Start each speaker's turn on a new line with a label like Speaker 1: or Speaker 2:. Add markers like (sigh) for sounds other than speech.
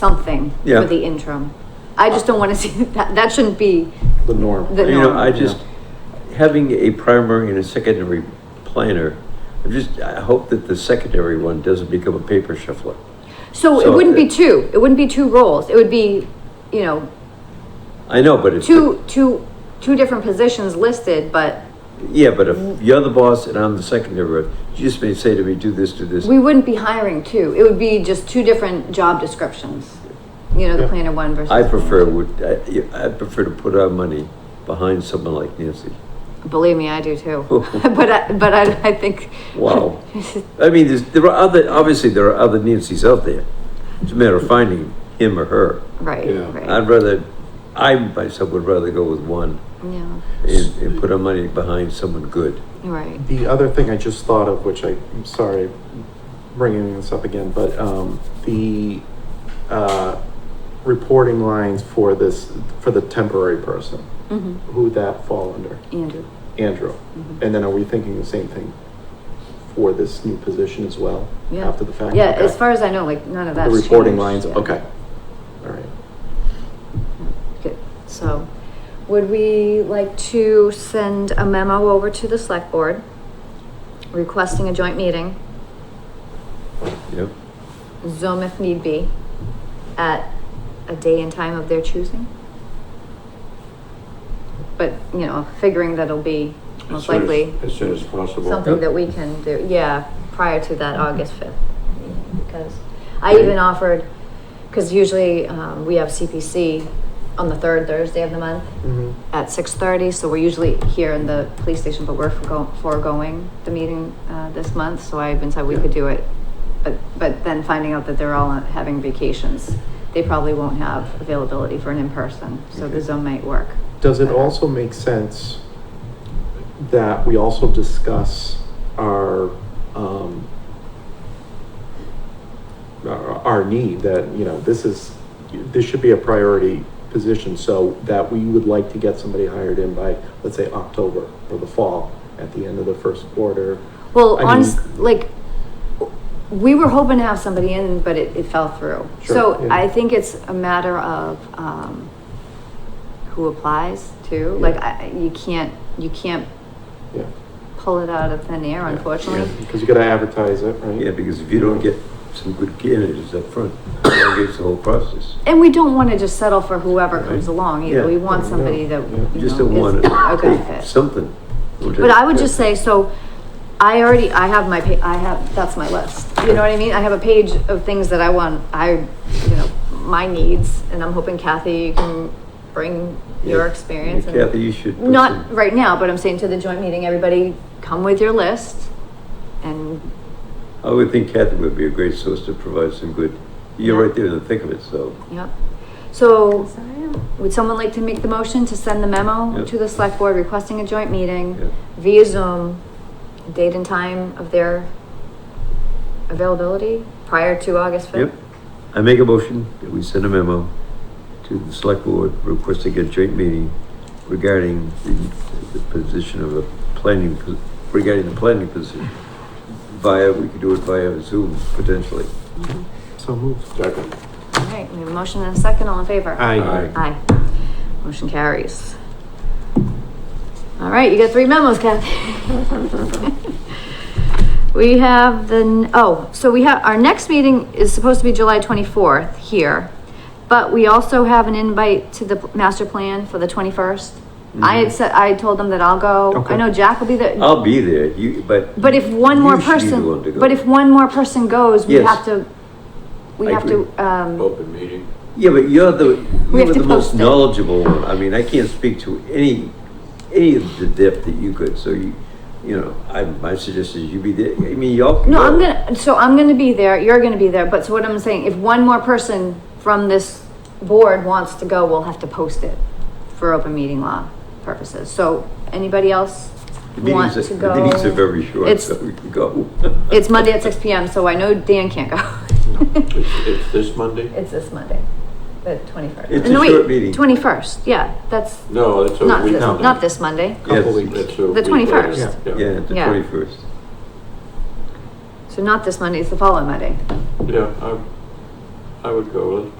Speaker 1: something
Speaker 2: Yeah.
Speaker 1: for the interim. I just don't wanna (laughs) see, that, that shouldn't be,
Speaker 3: the norm.
Speaker 1: The
Speaker 2: You know,
Speaker 1: norm.
Speaker 2: I just, having a primary and a secondary planner, I just, I hope that the secondary one doesn't become a paper shuffler.
Speaker 1: so it
Speaker 2: So
Speaker 1: wouldn't be
Speaker 2: it-
Speaker 1: two, it wouldn't be two roles, it would be, you know,
Speaker 2: I know, but it's,
Speaker 1: two, two, two different positions listed, but
Speaker 2: yeah, but if you're the boss and I'm the secondary, you just may say to me, do this, do this.
Speaker 1: we wouldn't be hiring two, it would be just two different job descriptions. You know, the
Speaker 3: Yeah.
Speaker 1: planner one versus.
Speaker 2: I
Speaker 1: the planner
Speaker 2: prefer,
Speaker 1: two.
Speaker 2: would, I, I prefer to put our money behind someone like Nancy.
Speaker 1: Believe me, I do too. (laughs) But I, but I, I think.
Speaker 2: Wow. I mean, there's, there are other, obviously, there are other Nancy's out there. It's a matter of finding him or her.
Speaker 1: Right,
Speaker 3: Yeah.
Speaker 1: right,
Speaker 2: I'd rather, I myself would rather go with one
Speaker 1: yeah,
Speaker 2: and, and put our money behind someone good.
Speaker 1: you're right.
Speaker 3: The other thing I just thought of, which I, I'm sorry, bringing this up again, but, um, the, uh, reporting lines for this, for the temporary person,
Speaker 1: Mhm.
Speaker 3: who would that fall under?
Speaker 1: Andrew, Mm-hmm.
Speaker 3: Andrew. And then are we thinking the same thing for this new position as well?
Speaker 1: Yeah.
Speaker 3: After the fact?
Speaker 1: yeah,
Speaker 3: Okay.
Speaker 1: as far as I know, like, none of
Speaker 3: The
Speaker 1: that's changed.
Speaker 3: reporting lines,
Speaker 1: yeah.
Speaker 3: okay. All right.
Speaker 1: Good. So, would we like to send a memo over to the select board requesting a joint meeting,
Speaker 2: Yep.
Speaker 1: Zoom if need be, at a day and time of their choosing? But, you know, figuring that it'll be
Speaker 4: As
Speaker 1: most
Speaker 4: soon as-
Speaker 1: likely
Speaker 4: As soon as possible.
Speaker 1: something
Speaker 2: Yep.
Speaker 1: that we can do, yeah, prior to that August fifth. Because I even offered, because usually, um, we have CPC on the third Thursday of the month at six thirty, so we're usually here in the police station, but we're forego- foregoing the meeting, uh, this month, so I even said we could do it. But, but then finding out that they're all having vacations, they probably won't have availability for an in-person, so the
Speaker 2: Okay.
Speaker 1: Zoom might work.
Speaker 3: Does it
Speaker 1: better.
Speaker 3: also make sense that we also discuss our, um, our, our need that, you know, this is, this should be a priority position, so that we would like to get somebody hired in by, let's say, October or the fall, at the end of the first quarter.
Speaker 1: Well,
Speaker 3: I mean-
Speaker 1: honest, like, we were hoping to have somebody in, but it, it fell through.
Speaker 3: Sure,
Speaker 1: So
Speaker 3: yeah.
Speaker 1: I think it's a matter of, um, who applies to, like,
Speaker 3: Yeah.
Speaker 1: I, I- you can't, you can't
Speaker 3: Yeah.
Speaker 1: pull it out of thin air, unfortunately.
Speaker 3: Because you gotta advertise it, right?
Speaker 2: Yeah, because if you don't get some good candidates up front, it elongates the whole process.
Speaker 1: And we don't wanna just settle for whoever comes
Speaker 2: Right.
Speaker 1: along either, we
Speaker 2: Yeah.
Speaker 1: want
Speaker 3: No,
Speaker 1: somebody that,
Speaker 3: yeah. You
Speaker 2: You
Speaker 1: you
Speaker 2: just
Speaker 1: know,
Speaker 2: don't
Speaker 1: is
Speaker 2: want
Speaker 1: a good
Speaker 2: to,
Speaker 1: fit.
Speaker 2: something.
Speaker 1: But I would just say, so I already, I have my, pa- I have, that's my list. You know what I mean? I have a page of things that I want, I, you know, my needs, and I'm hoping Kathy, you can bring your
Speaker 2: Yeah.
Speaker 1: experience. and-
Speaker 2: Kathy, you should. put
Speaker 1: Not
Speaker 2: some-
Speaker 1: right now, but I'm saying to the joint meeting, everybody come with your list and,
Speaker 2: I would think Kathy would be a great source to provide some good, you're
Speaker 1: Yeah.
Speaker 2: right there in the thick of it, so.
Speaker 1: yep. So would someone like to make the motion to send the memo
Speaker 2: Yeah.
Speaker 1: to the select board requesting a joint meeting?
Speaker 2: yeah.
Speaker 1: via Zoom, date and time of their availability prior to August
Speaker 2: Yep.
Speaker 1: fifth?
Speaker 2: I make a motion that we send a memo to the select board requesting a joint meeting regarding the, the position of a planning, po- regarding the planning position. Via, we could do it via Zoom potentially.
Speaker 3: So moved.
Speaker 4: Second.
Speaker 1: All right, we have a motion and a second, all in favor?
Speaker 3: Aye.
Speaker 1: Aye. Motion carries. All right, you got three memos, Kathy. (laughs) We have the, n- oh, so we have, our next meeting is supposed to be July twenty-fourth here. But we also have an invite to the p- master plan for the twenty-first. I
Speaker 2: Mm-hmm.
Speaker 1: had said, I told them that I'll go. I
Speaker 3: Okay.
Speaker 1: know Jack will be there.
Speaker 2: I'll be there, you, but.
Speaker 1: But if one
Speaker 2: Uh, you
Speaker 1: more
Speaker 2: should be the one to
Speaker 1: person,
Speaker 2: go.
Speaker 1: but if one more person goes, we
Speaker 2: Yes.
Speaker 1: have to, we
Speaker 2: I
Speaker 1: have to, um,
Speaker 4: Open meeting.
Speaker 2: Yeah, but you're the,
Speaker 1: We have
Speaker 2: you're
Speaker 1: to
Speaker 2: the most
Speaker 1: post it.
Speaker 2: knowledgeable one. I mean, I can't speak to any, any of the depth that you could, so you, you know, I, my suggestion is you be there. I mean, y'all. can
Speaker 1: no,
Speaker 2: go.
Speaker 1: I'm gonna, so I'm gonna be there, you're gonna be there, but so what I'm saying, if one more person from this board wants to go, we'll have to post it for open meeting law purposes. So anybody else
Speaker 2: The
Speaker 1: want
Speaker 2: meetings,
Speaker 1: to
Speaker 2: are- the meetings are
Speaker 1: go?
Speaker 2: very short,
Speaker 1: It's-
Speaker 2: so we can go. (laughs)
Speaker 1: It's Monday at six P M, so I know Dan can't go.
Speaker 4: It's, it's this Monday?
Speaker 1: (laughs) It's this Monday, the twenty-first.
Speaker 2: It's a short meeting.
Speaker 1: Twenty-first, yeah, that's
Speaker 4: No, it's a
Speaker 1: not
Speaker 4: week.
Speaker 1: this, not this Monday.
Speaker 3: Couple
Speaker 2: Yes.
Speaker 3: weeks.
Speaker 4: It's a week later.
Speaker 1: 21st.
Speaker 2: Yeah, the
Speaker 1: Yeah.
Speaker 2: twenty-first.
Speaker 1: So not this Monday, it's the following Monday.
Speaker 4: Yeah, I, I would go with